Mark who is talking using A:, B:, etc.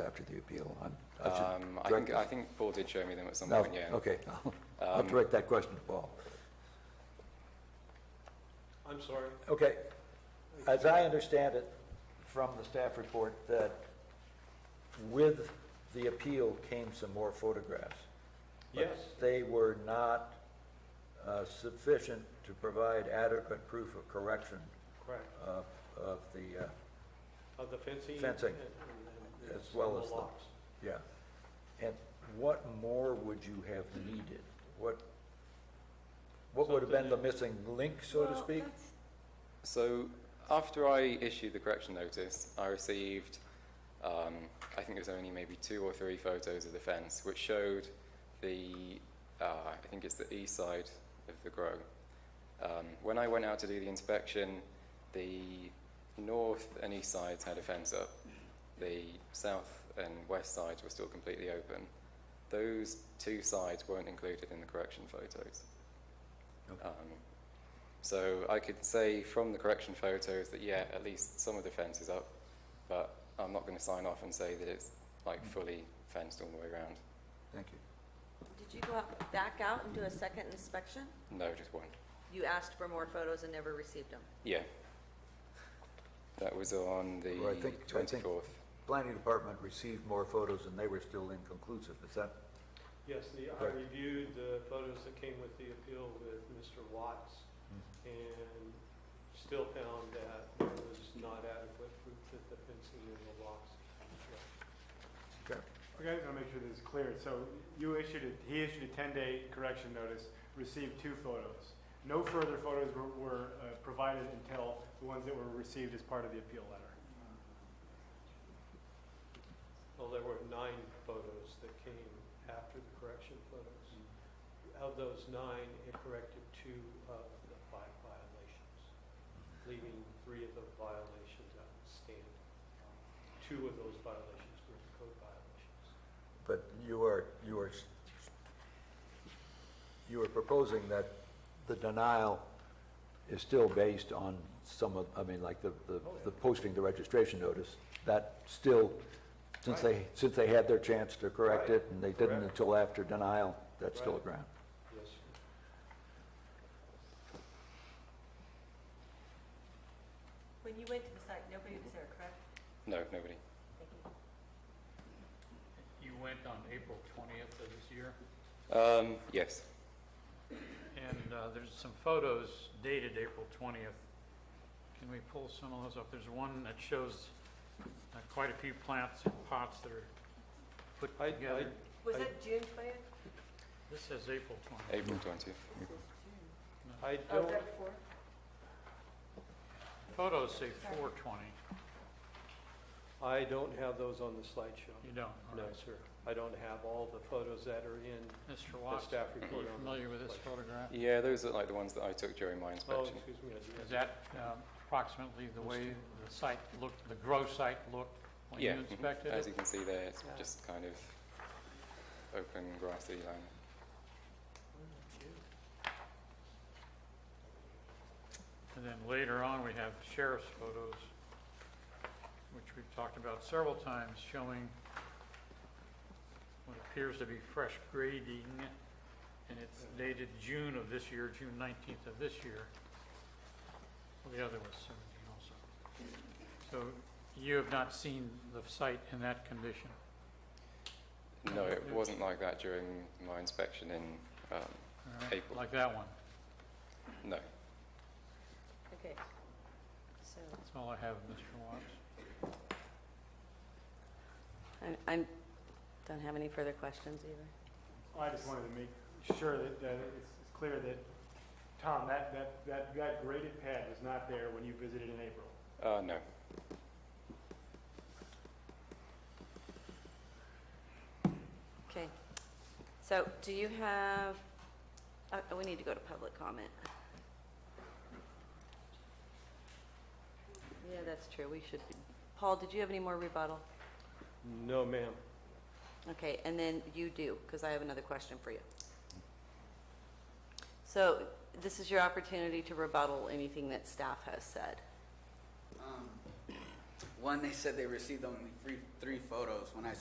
A: after the appeal? I'm- I should
B: Um, I
A: direct
B: think,
A: this-
B: I think Paul did show me them at some
A: No, Oh,
B: point, yeah. Um,
A: okay, I'll- I'll direct that question to Paul.
C: I'm sorry.
A: Okay, as I understand it from the staff report, that with the appeal came some more photographs. but
C: Yes,
A: They were not uh, sufficient to provide adequate proof of correction
C: correct.
A: of, of the, uh,
C: Of the fencing.
A: Fencing,
C: and- and- and- and
A: as well
C: some of
A: as the-
C: locks.
A: yeah. And what more would you have needed? What, what would have been the missing link, so to
D: Well,
A: speak?
D: that's-
B: So after I issued the correction notice, I received, um, I think it was only maybe two or three photos of the fence, which showed the, uh, I think it's the east side of the grow. Um, when I went out to do the inspection, the north and east sides had a fence up. The south and west sides were still completely open. Those two sides weren't included in the correction photos.
A: Okay.
B: Um, so I could say from the correction photos that yeah, at least some of the fence is up, but I'm not going to sign off and say that it's like fully fenced all the way around.
A: Thank you.
D: Did you go out, back out and do a second inspection?
B: No, just one.
D: You asked for more photos and never received them.
B: Yeah. That was on the
A: Well, I think- I think-
B: 24th.
A: Planning Department received more photos and they were still inconclusive, is that?
C: Yes, the, I
A: Correct.
C: reviewed the photos that came with the appeal with Mr. Watts and still found that there was not adequate proof that the fencing and the locks.
A: Okay.
E: Okay, I'll make sure this is clear. So you issued, a- he issued a 10-day correction notice, received two photos. No further photos were- were uh, provided until the ones that were received as part of the appeal letter.
C: Well, there were nine photos that came after the correction photos. Of those nine, it corrected two of the five violations, leaving three of the violations outstanding. Two of those violations were code violations.
A: But you are, you are, you are proposing that the denial is still based on some of, I mean, like the,
C: Oh,
A: the- the posting the registration notice, that still, since they, since they had their chance to correct it and they didn't
C: Correct.
A: until after denial, that's still a
C: Right.
A: ground.
C: Yes, sir.
D: When you went to the site, nobody was there, correct?
B: No, nobody.
F: You went on April 20th of this year,
B: Um, yes.
F: and uh, there's some photos dated April 20th. Can we pull some of those up? There's one that shows uh, quite a few plants and pots that are
C: I,
F: put
C: I,
F: together.
D: Was
C: I-
D: that June twentieth?
F: This says April 20th.
B: April 20th.
C: I
D: Oh, is
C: don't,
D: that before?
F: Photos say 420.
C: I don't have those on the slideshow.
F: You don't, all
C: No,
F: right.
C: sir. I don't have all the photos that are in
F: Mr.
C: the
F: Watts,
C: staff
F: are you
C: report. on the
F: familiar with this
C: slideshow.
F: photograph?
B: Yeah, those are like the ones that I took during my
C: Oh,
B: inspection.
C: excuse me. I do have-
F: Is that uh, approximately the way the site looked, the grow site looked when you
B: yeah. mhm.
F: inspected
B: As
F: it?
B: you can see there, it's
C: Yeah.
B: just kind of open grassy land.
F: And then later on, we have sheriff's photos, which we've talked about several times, showing what appears to be fresh grading, and it's dated June of this year, June 19th of this year. Well, The other was 17 also. So you have not seen the site in that condition?
B: No, it wasn't like that during my inspection in um,
F: all right?
B: April.
F: Like that one.
B: No.
D: Okay. So,
F: That's all I have, Mr. Watts.
D: I, I don't have any further questions either.
E: I just wanted to make sure that, that it's it's clear that, Tom, that, that, that, that graded pad was not there when you visited in April.
B: Uh, no.
D: Okay. So do you have, uh, we need to go to public comment. Yeah, that's true. We should. be- Paul, did you have any more rebuttal?
C: No, ma'am.
D: Okay, and then you do, because I have another question for you. So this is your opportunity to rebuttal anything that staff has said.
G: Um, One, they said they received only three, three photos. When I